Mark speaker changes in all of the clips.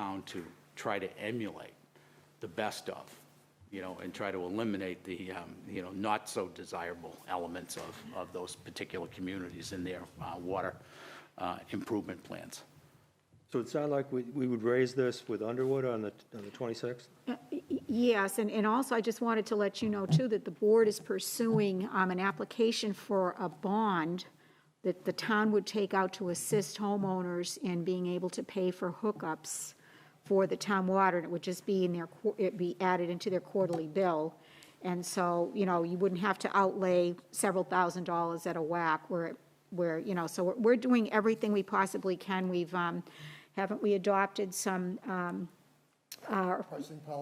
Speaker 1: town to try to emulate the best of, you know, and try to eliminate the, um, you know, not so desirable elements of, of those particular communities in their uh, water uh, improvement plans.
Speaker 2: So it sounded like we, we would raise this with Underwood on the, on the 26th?
Speaker 3: Yes, and, and also I just wanted to let you know too that the board is pursuing um, an application for a bond that the town would take out to assist homeowners in being able to pay for hookups for the town water, and it would just be in their, qu- it'd be added into their quarterly bill. And so, you know, you wouldn't have to outlay several thousand dollars at a whack where, it- where, you know, so we're, we're doing everything we possibly can. We've, um, haven't we adopted some, um,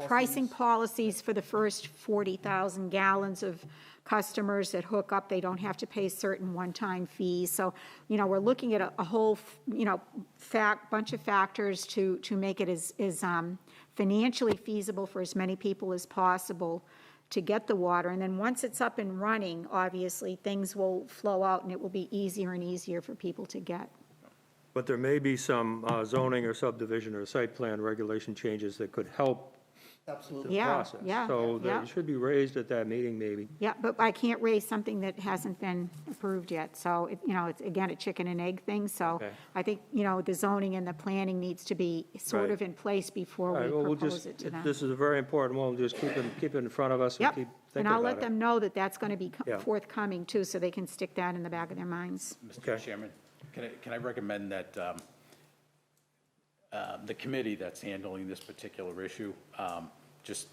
Speaker 3: pricing policies for the first 40,000 gallons of customers that hook up, they don't have to pay certain one-time fees. So, you know, we're looking at a- a whole, you know, fact, bunch of factors to, to make it as, as um, financially feasible for as many people as possible to get the water. And then once it's up and running, obviously, things will flow out and it will be easier and easier for people to get.
Speaker 2: But there may be some uh, zoning or subdivision or site plan regulation changes that could help the
Speaker 4: Absolutely.
Speaker 3: Yeah,
Speaker 2: process.
Speaker 3: yeah,
Speaker 2: So that
Speaker 3: yeah.
Speaker 2: it should be raised at that meeting, maybe.
Speaker 3: Yeah, but I can't raise something that hasn't been approved yet, so, it- you know, it's, again, a chicken and egg thing, so
Speaker 2: Okay.
Speaker 3: I think, you know, the zoning and the planning needs to be sort
Speaker 2: Right.
Speaker 3: of in place before
Speaker 2: All right, well,
Speaker 3: we
Speaker 2: we'll
Speaker 3: propose
Speaker 2: just,
Speaker 3: it to
Speaker 2: it-
Speaker 3: them.
Speaker 2: this is a very important one, just keep it, keep it in front of us and
Speaker 3: Yep,
Speaker 2: keep
Speaker 3: and
Speaker 2: thinking
Speaker 3: I'll
Speaker 2: about
Speaker 3: let
Speaker 2: it.
Speaker 3: them know that that's going to be co-
Speaker 2: Yeah.
Speaker 3: forthcoming too, so they can stick that in the back of their minds.
Speaker 2: Okay.
Speaker 1: Mr. Chairman, can I, can I recommend that um, uh, the committee that's handling this particular issue um, just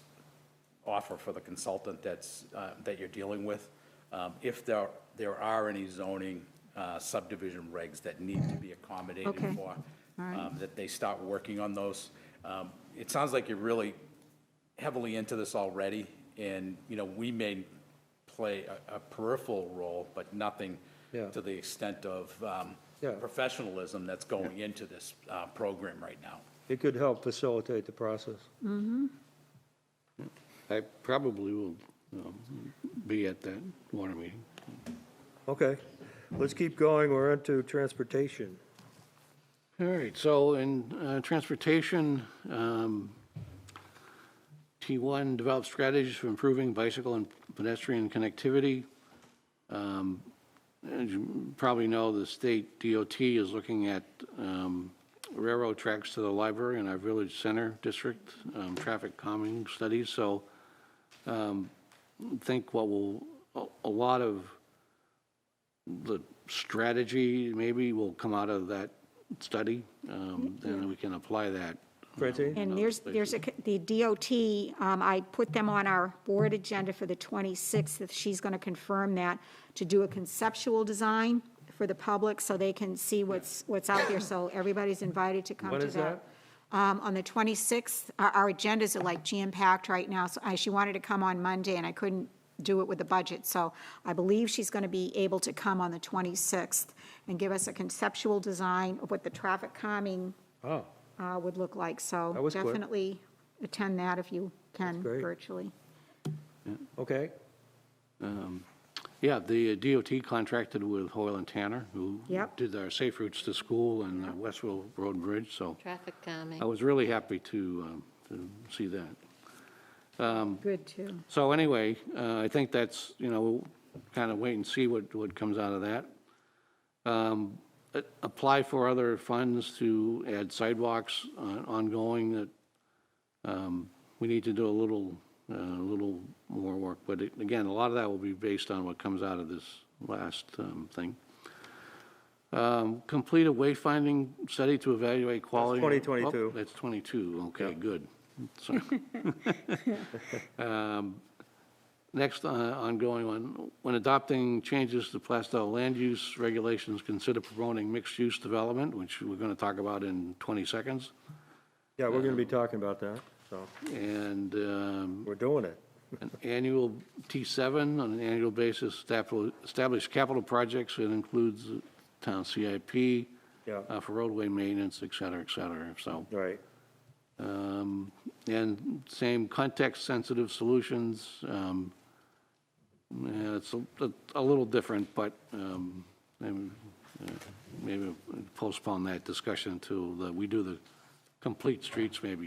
Speaker 1: offer for the consultant that's, uh, that you're dealing with, um, if there, there are any zoning uh, subdivision regs that need to be accommodated
Speaker 3: Okay.
Speaker 1: for,
Speaker 3: right.
Speaker 1: um, that they start working on those. Um, It sounds like you're really heavily into this already, and, you know, we may play a- a peripheral role, but nothing
Speaker 2: Yeah.
Speaker 1: to the extent of um,
Speaker 2: Yeah.
Speaker 1: professionalism that's going into this uh, program right now.
Speaker 2: It could help facilitate the process.
Speaker 5: I probably will um, be at that water meeting.
Speaker 2: Okay, let's keep going, we're into transportation.
Speaker 5: All right, so in uh, transportation, um, T1 develops strategies for improving bicycle and pedestrian connectivity. Um, As you probably know, the state DOT is looking at um, railroad tracks to the library and our village center district, um, traffic calming studies. So um, I think what will, a- a lot of the strategy maybe will come out of that study, um, then we can apply that.
Speaker 2: Francine?
Speaker 3: And there's, there's a, the DOT, um, I put them on our board agenda for the 26th, if she's going to confirm that, to do a conceptual design for the public, so they can see what's, what's out there, so everybody's invited to come to
Speaker 2: When
Speaker 3: that.
Speaker 2: is that?
Speaker 3: Um, on the 26th, our, our agendas are like jam-packed right now, so I, she wanted to come on Monday, and I couldn't do it with the budget, so I believe she's going to be able to come on the 26th and give us a conceptual design of what the traffic calming
Speaker 2: Oh,
Speaker 3: uh, would look like,
Speaker 2: That
Speaker 3: so
Speaker 2: was quick.
Speaker 3: definitely attend that if you can
Speaker 2: great.
Speaker 3: virtually.
Speaker 2: okay,
Speaker 5: Yeah, the DOT contracted with Hoyle and Tanner, who
Speaker 3: Yep.
Speaker 5: did our safe routes to school and the Westville Road Bridge, so
Speaker 6: Traffic
Speaker 5: I
Speaker 6: calming.
Speaker 5: was really happy to, um, to see that.
Speaker 3: Good, too.
Speaker 5: So anyway, uh, I think that's, you know, kind of wait and see what, what comes out of that. Um, a- Apply for other funds to add sidewalks uh, ongoing that um, we need to do a little, uh, a little more work. But it- again, a lot of that will be based on what comes out of this last um, thing. Um, Complete a wayfinding study to evaluate quality.
Speaker 2: 2022.
Speaker 5: Oh, That's 22, okay, good. Sorry. Um, Next, uh, ongoing one, when adopting changes to Plastow land use regulations, consider promoting mixed-use development, which we're going to talk about in 20 seconds.
Speaker 2: yeah, we're gonna be talking about that, so,
Speaker 5: And um,
Speaker 2: we're doing it.
Speaker 5: an annual T7 on an annual basis, staff will establish capital projects, it includes town CIP
Speaker 2: Yeah.
Speaker 5: uh, for roadway maintenance, et cetera, et cetera, so.
Speaker 2: Right,
Speaker 5: Um, And same context-sensitive solutions. um, yeah, It's a- a little different, but um, maybe uh, maybe postpone that discussion to, we do the complete streets maybe